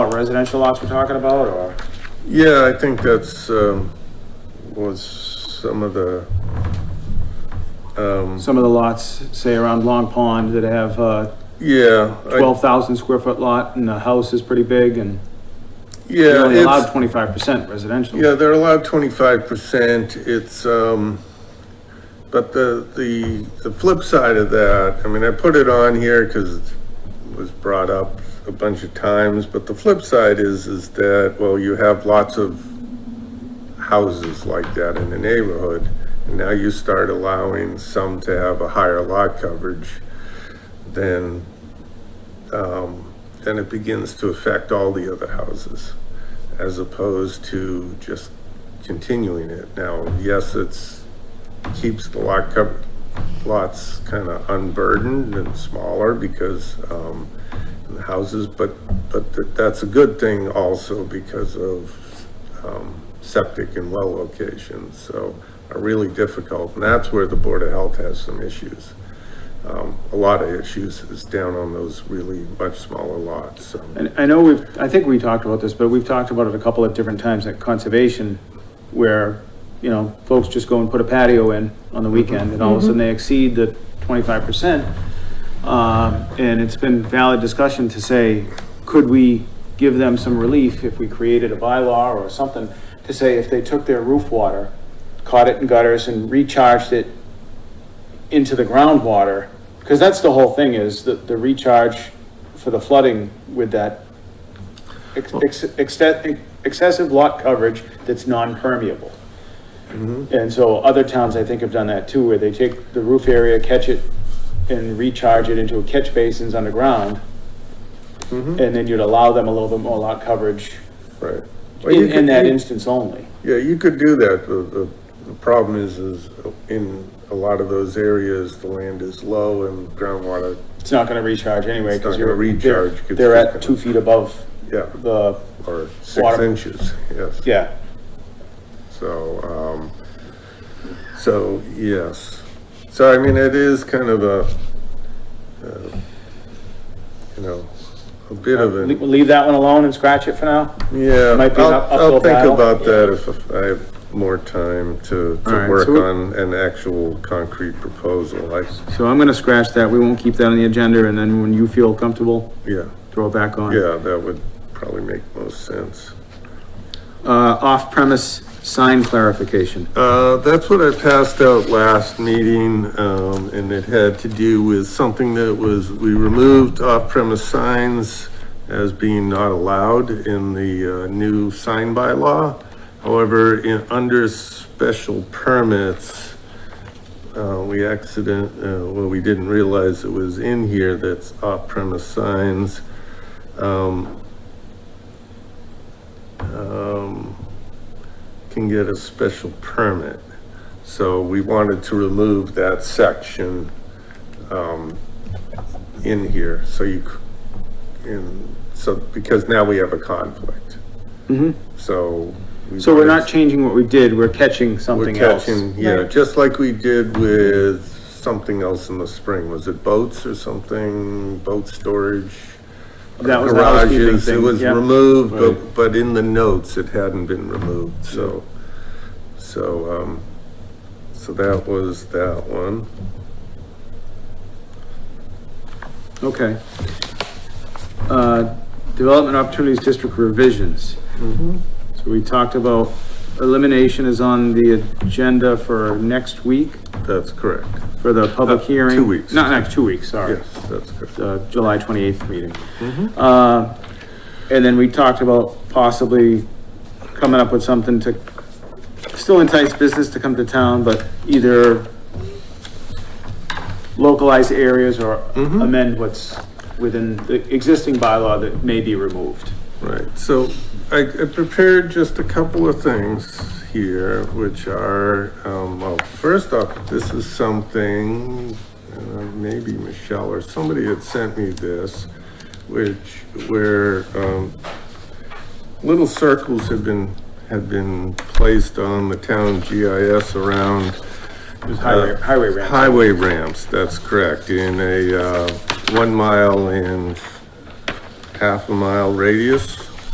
residential lots we're talking about, or? Yeah, I think that's, um, was some of the, um, Some of the lots, say around Long Pond, that have a yeah. I- twelve thousand square foot lot and the house is pretty big and they're Yeah, only allowed it's, twenty-five percent residential. yeah, they're allowed twenty-five percent, it's, um, but the, the, the flip side of that, I mean, I put it on here because it was brought up a bunch of times, but the flip side is, is that, well, you have lots of houses like that in the neighborhood, and now you start allowing some to have a higher lot coverage, then, um, then it begins to affect all the other houses, as opposed to just continuing it. Now, yes, it's, keeps the lot cover, lots kind of unburdened and smaller because, um, the houses, but, but th- that's a good thing also because of, um, septic and well locations, so are really difficult, and that's where the Board of Health has some issues. Um, a lot of issues is down on those really much smaller lots, so. And I know we've, I think we talked about this, but we've talked about it a couple of different times at conservation where, you know, folks just go and put a patio in on the weekend and all of a sudden they exceed the twenty-five percent. Um, and it's been valid discussion to say, could we give them some relief if we created a bylaw or something to say if they took their roof water, caught it in gutters and recharged it into the groundwater, because that's the whole thing is the, the recharge for the flooding with that ex- ex- exte- excessive lot coverage that's non-permeable. Mm-hmm. And so other towns, I think, have done that too, where they take the roof area, catch it and recharge it into catch basins underground. Mm-hmm. And then you'd allow them a little bit more lot coverage Right. Well, in, you in could- that you- instance only. Yeah, you could do that. The, the, the problem is, is in a lot of those areas, the land is low and groundwater, It's not gonna recharge anyway, It's not because you're, gonna they're, recharge, 'cause they're it's at gonna- two feet above yeah, the, or six Water. inches, yes. yeah. So, um, so, yes. So, I mean, it is kind of a, uh, you know, a bit of Le- an, We'll leave that one alone and scratch it for now? yeah. Uh, might be an I'll- up- uphill I'll battle. think about that if I have more time to, All right, so to work we- on an actual concrete proposal. I, So I'm gonna scratch that, we won't keep that on the agenda, and then when you feel comfortable, yeah. throw it back on. Yeah, that would probably make most sense. Uh, off-premise sign clarification. Uh, that's what I passed out last meeting, um, and it had to do with something that was, we removed off-premise signs as being not allowed in the, uh, new sign bylaw. However, in, under special permits, uh, we accident, uh, well, we didn't realize it was in here that's off-premise signs. Um, um, can get a special permit. So we wanted to remove that section, um, in here, so you, c- in, so, because now we have a conflict, Mm-hmm. so. we So we're wanted not changing what we did, we're catching we're something else. catching, yeah, Right. just like we did with something else in the spring, was it boats or something, boat storage? That was the housekeeping Garages, It thing, was yeah. removed, Right. but, but in the notes, it hadn't been removed, so, so, um, so that was that one. Okay. Uh, development opportunities district revisions. So we talked about elimination is on the agenda for next week, That's correct, for the public Uh, two hearing. weeks. Not, not two weeks, sorry. yes, that's correct. the uh, July 28th meeting. Uh, And then we talked about possibly coming up with something to still entice business to come to town, but either localize areas or amend what's within the existing bylaw that may be removed. Right, so I, I prepared just a couple of things here, which are, um, well, first off, this is something, uh, maybe Michelle or somebody had sent me this, which, where, um, little circles have been, have been placed on the town GIS around Highway, highway ramp. Highway ramps, that's correct, in a, uh, one mile and half a mile radius.